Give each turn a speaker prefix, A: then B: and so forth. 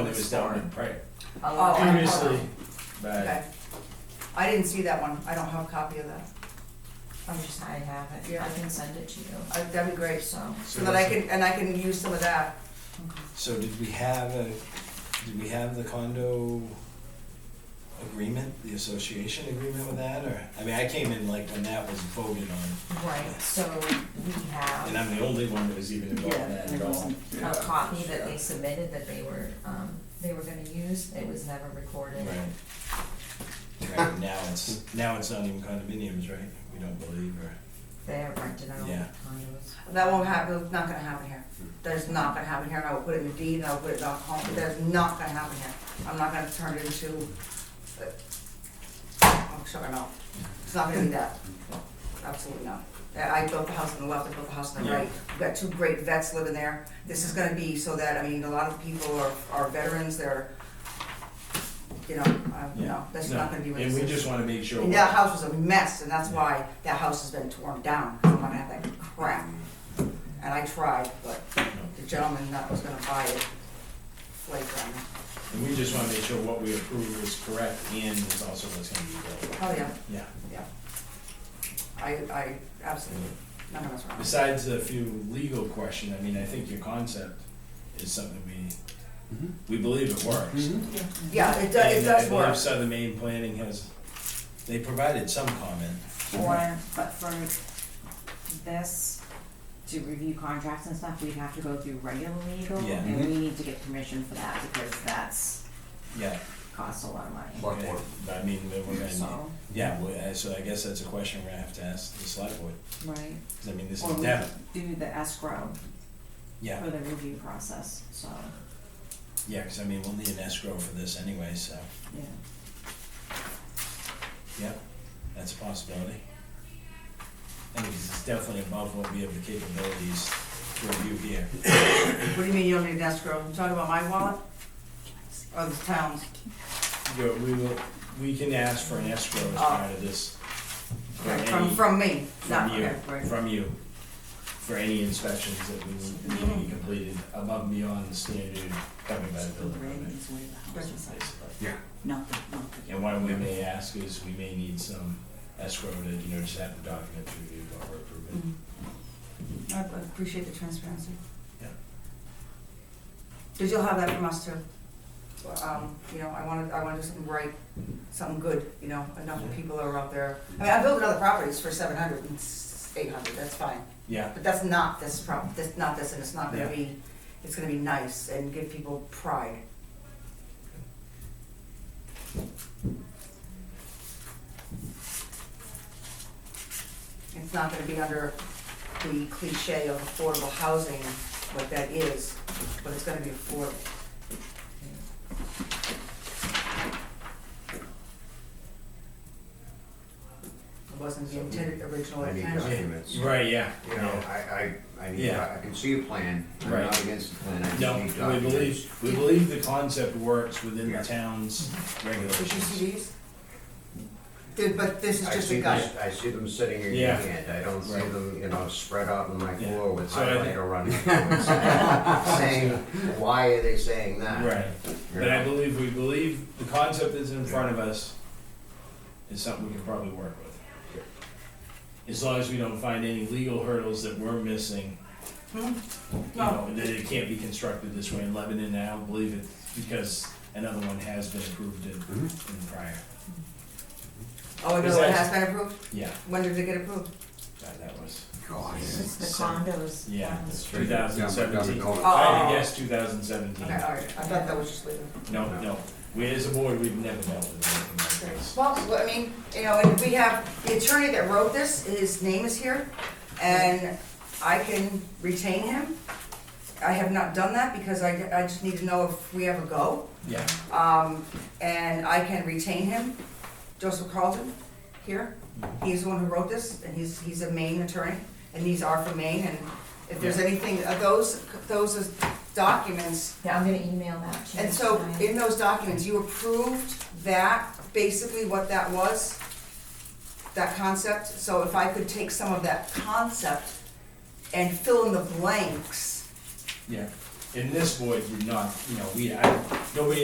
A: it was down in Prague
B: I'll-
C: Oh, I-
A: previously,
C: Okay.
A: but
C: I didn't see that one. I don't have a copy of that.
B: I wish I have it,
C: Yeah.
B: I can send it to you,
C: I- That'd be great.
B: so.
C: So that I can, and I can use some of that.
A: So did we have a, did we have the condo agreement, the association agreement with that, or, I mean, I came in like when that was voted on,
B: Right, so we
A: and
B: have
A: I'm the only one that was even involved in that at all.
B: a copy that they submitted that they were, um, they were gonna use, it was never recorded.
A: Right. Right, now it's, now it's not even condominiums, right? We don't believe, or,
B: They're rented out
A: Yeah.
B: condos.
C: That won't happen, it's not gonna happen here. That is not gonna happen here, and I will put it in the deed, and I'll put it in the home, but that is not gonna happen here. I'm not gonna turn it into, uh, oh, shut my mouth. It's not gonna be that. Absolutely not. That- I built the house on the left, I built the house on the
A: Yeah.
C: right. We've got two great vets living there. This is gonna be so that, I mean, a lot of people are, are veterans, they're, you know, uh,
A: yeah.
C: no, that's not gonna be what this
A: And
C: is.
A: we just wanna make sure.
C: And that house was a mess, and that's why that house has been torn down, 'cause I'm not gonna have that crap. And I tried, but the gentleman that was gonna buy it flaked on me.
A: And we just wanna make sure what we approve is correct and is also what's gonna be built.
C: Oh, yeah,
A: Yeah.
C: yeah. I, I absolutely, none of us wrong.
A: Besides a few legal question, I mean, I think your concept is something
D: Mm-hmm.
E: Mhm.
A: we, we believe it works.
C: Yeah, it does, it
A: And
C: does
A: I believe
C: work.
A: Southern Maine Planning has, they provided some comment.
D: For, but for this, to review contracts and stuff, we'd have to go through regular legal,
A: Yeah.
D: and we need to get permission for that, because that's
A: Yeah.
D: costs a lot of money,
E: Select board.
A: But I mean, we're gonna,
D: so,
A: need- yeah, we- uh, so I guess that's a question we're gonna have to ask the select board,
D: right?
A: 'cause I mean, this
D: Or
A: is
D: we-
A: Devon,
D: Do the escrow
A: yeah,
D: for the review process, so,
A: yeah, 'cause I mean, we'll need an escrow for this anyway, so,
D: yeah.
A: yeah, that's a possibility. I mean, 'cause it's definitely above what we have the capabilities to review here.
C: What do you mean you don't need an escrow? You talking about my wallet? Or the town's?
A: But we will, we can ask for an escrow as
C: Oh.
A: part of this. for
C: Okay,
A: any-
C: From, from me,
A: From
C: not,
A: you,
C: okay, right.
A: from you, for any inspections that we need need to be completed above and beyond the standard covered by the building permit. basically.
D: Not the, not the.
A: And what we may ask is, we may need some escrow to, you know, just have the documents reviewed while we're
C: Mm-hmm.
A: approving.
C: I I appreciate the transparency.
A: Yeah.
C: Because you'll have that from us too. Um, you know, I wanna, I wanna do something right, something good, you know, enough
A: Yeah.
C: people are out there. I mean, I built other properties for seven hundred and eight hundred, that's fine,
A: Yeah,
C: but that's not this problem, that's not this, and it's not gonna
A: Yeah.
C: be, it's gonna be nice and give people pride. It's not gonna be under the cliche of affordable housing, what that is, but it's gonna be affordable. It wasn't the intended, original
F: I need
C: intent.
F: documents. You
A: right, yeah,
F: know, I, I, I need,
A: Yeah.
F: I can see a plan. I'm
A: Right.
F: not against the plan. I just
A: No,
F: need
A: we
F: documents.
A: believe, we believe the concept works within the
F: Yeah.
A: town's
C: Mm-hmm. Did you
A: regulations.
C: see these? Did, but this is
F: I
C: just
F: see
C: a guide.
F: this- I see them sitting in
A: Yeah.
F: your hand. I don't see
A: Right.
F: them, you know, spread out on my
A: Yeah.
F: floor with
A: So I think-
F: highlighter running. through it, Saying, why are they saying that?
A: Right,
F: You
A: but I
F: know?
A: believe, we believe the concept that's in front of us is something we can probably work with. As long as we don't find any legal hurdles that we're missing you know, that it can't be constructed this way in Lebanon, and I don't believe it, because another one has been approved in, in prior.
C: Oh, no,
A: Is
C: it
A: that-
C: has been approved?
A: Yeah,
C: When did it get approved?
A: that, that was,
F: God.
B: It's the
A: So-
B: condos.
A: yeah,
B: um,
A: two thousand seventeen.
C: Oh,
A: I had to
C: oh, oh.
A: guess two thousand seventeen.
C: Okay, all right, I thought that was just legal.
A: No, no, we as a board, we've never dealt with anything like this.
C: Well, I mean, you know, and we have, the attorney that wrote this, his name is here, and I can retain him. I have not done that because I, I just need to know if we ever go.
A: Yeah,
C: Um, and I can retain him, Joseph Carlton, here. He's the one who wrote this, and he's, he's a Maine attorney, and these are from Maine, and if there's anything, uh, those, those is documents,
B: Yeah, I'm gonna email that to you.
C: and so
B: tonight.
C: in those documents, you approved that, basically what that was, that concept, so if I could take some of that concept and fill in the blanks
A: yeah, And this board did not, you know, we, I, nobody